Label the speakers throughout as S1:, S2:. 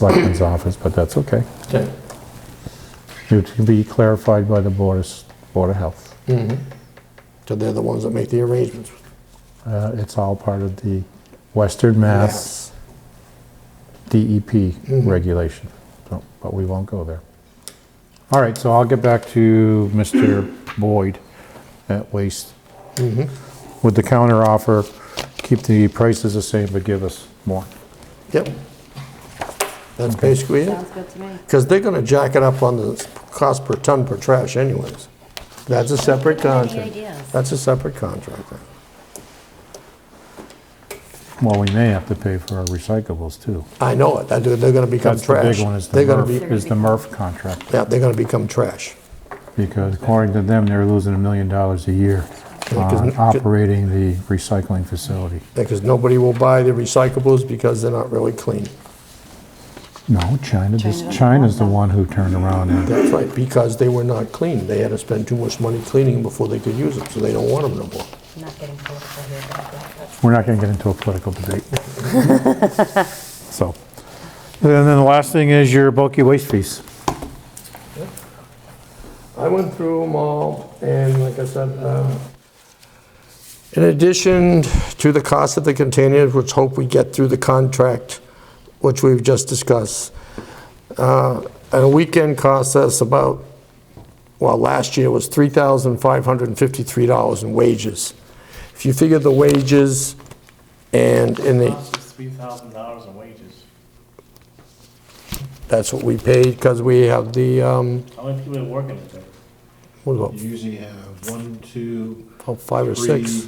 S1: Selectmen's office, but that's okay.
S2: Okay.
S1: It can be clarified by the Board of, S- Board of Health.
S2: So they're the ones that make the arrangements.
S1: Uh, It's all part of the Western Mass DEP
S2: Mm-hmm.
S1: regulation, So, but we won't go there. All right, so I'll get back to Mr. Boyd at Waste Mm-hmm. with the counter offer, keep the prices the same, but give us more.
S2: Yep. That's basically it.
S3: Sounds good to me.
S2: Because they're gonna jack it up on the cost per ton per trash anyways. That's a separate contract.
S3: ideas?
S2: That's a separate contract. then.
S1: Well, we may have to pay for our recyclables too.
S2: I know it. That- They're gonna become
S1: That's the
S2: trash.
S1: big one, is the
S2: They're gonna
S1: Murph,
S2: be,
S1: is the Murph contract.
S2: yeah, they're gonna become trash.
S1: Because according to them, they're losing a million dollars a year on
S2: Because-
S1: operating the recycling facility.
S2: Because nobody will buy the recyclables because they're not really clean.
S1: No, China, this,
S3: China.
S1: China's the one who turned around and,
S2: That's right, because they were not clean. They had to spend too much money cleaning them before they could use them, so they don't want them no more.
S3: I'm not getting political here, but that's
S1: we're not gonna get into a political debate. So, and then the last thing is your bulky waste fees.
S2: I went through them all, and like I said, um, in addition to the cost of the containers, which hope we get through the contract, which we've just discussed, uh, and a weekend cost us about, well, last year was $3,553 in wages. If you figure the wages and in the,
S4: Cost is three thousand dollars in wages.
S2: that's what we paid, because we have the, um,
S4: How many people are working at that?
S2: what about,
S5: You usually have one, two,
S2: about five or
S5: three,
S2: six,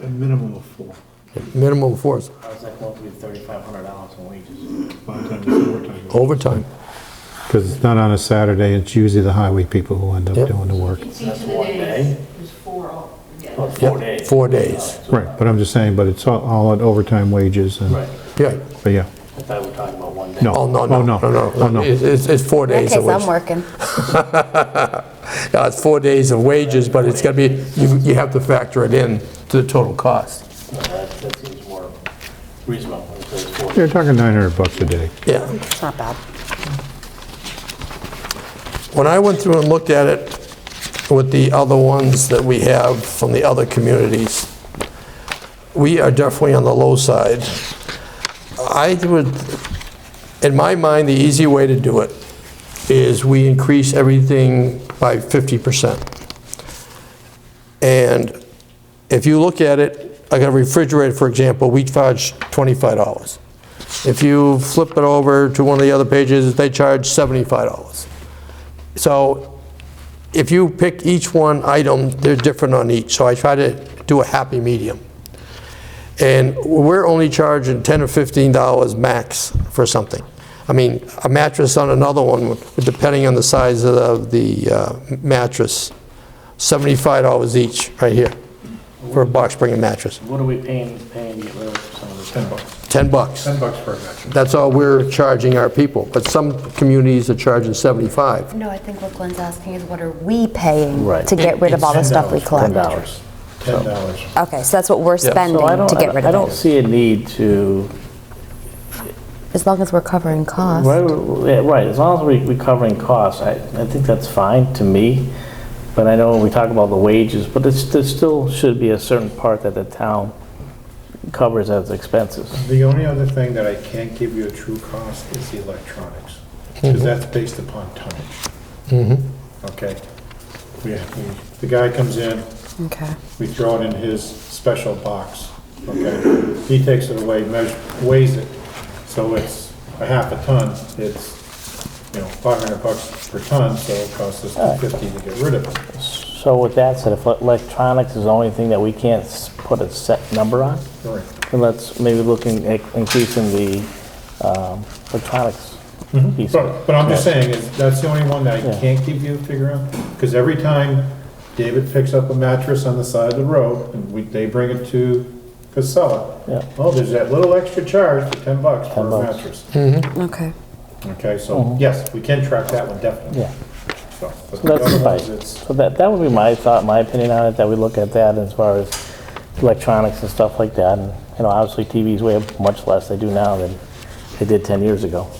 S5: a minimum of four.
S2: minimum force,
S4: How's that going to be thirty-five hundred dollars in wages?
S5: Five times four times.
S1: Oh,
S2: overtime.
S6: Because it's not on a Saturday, it's usually the highway people who end up
S2: Yep.
S6: doing the work.
S7: It's each of the
S4: one
S7: days,
S4: day?
S7: there's four all together.
S4: Oh, Four
S2: Yep,
S4: days.
S2: Four days,
S6: Right, but I'm just saying, but it's all- all at overtime wages and,
S4: Right,
S2: yeah.
S6: but yeah,
S4: I thought we were talking about one day.
S6: no.
S2: Oh, no, no, no, no,
S6: Oh,
S2: no.
S6: no.
S2: It's, it's- it's four
S3: okay.
S2: days of
S3: I'm
S2: wages.
S3: working.
S2: Yeah, It's four days of wages, but it's gonna be, you, you have to factor it in to the total cost.
S4: No, That, that seems more reasonable, if it's four
S6: You're talking 900 bucks a day.
S2: Yeah.
S3: It's not bad.
S2: When I went through and looked at it with the other ones that we have from the other communities, we are definitely on the low side. I would, in my mind, the easy way to do it is we increase everything by 50%. And if you look at it, like a refrigerator, for example, we charge $25. If you flip it over to one of the other pages, they charge $75. So if you pick each one item, they're different on each, so I try to do a happy medium. And we're only charging 10 or 15 dollars max for something. I mean, a mattress on another one, depending on the size of the uh, mattress, 75 dollars each, right here, for a box spring mattress,
S4: What are we paying, paying to get rid of some of the? Ten bucks.
S2: 10 bucks.
S5: bucks per match.
S2: That's all we're charging our people, but some communities are charging 75.
S3: No, I think what Glenn's asking is what are we paying
S8: Right.
S3: to get rid of all the stuff we collect?
S8: $10.
S5: Ten dollars.
S3: Okay, so that's what we're
S2: so I
S3: spending
S8: So I
S3: to
S8: don't-
S3: get rid
S8: I
S3: of
S8: don't
S3: it.
S8: see a need to,
S3: As long as we're covering costs.
S8: right, yeah, right, as long as we- we're covering costs, I, I think that's fine to me. But I know we talk about the wages, but it's, there still should be a certain part that the town covers as expenses.
S5: The only other thing that I can't give you a true cost is the electronics,
S2: Mm-hmm.
S5: because that's based upon tonnage. Okay? We, we- the guy comes in,
S3: Okay.
S5: we throw it in his special box, okay? He takes it away, measures, weighs it, so it's a half a ton, it's, you know, five hundred bucks per ton, so it costs us two fifty to get rid of it.
S8: So with that said, if electronics is the only thing that we can't s- put a set number on,
S5: All right.
S8: then let's maybe looking at increasing the um, electronics piece. of it.
S5: Mm-hmm. But, but I'm just
S8: Yeah.
S5: saying, is that's the only one that I
S8: Yeah.
S5: can't give you a figure on, because every time David picks up a mattress on the side of the road, and we, they bring it to Casella.
S8: Yeah.
S5: Oh, there's that little extra charge for ten bucks for
S8: 10
S5: a
S8: bucks. Mm-hmm.
S5: mattress.
S3: Okay.
S5: Okay, so, yes, we can track that one definitely.
S8: Yeah.
S5: So, but the
S8: That's
S5: other ones,
S8: right.
S5: it's,
S8: So that, that would be my thought, my opinion on it, that we look at that as far as electronics and stuff like that. And, you know, obviously TVs weigh much less, they do now than They did 10 years ago.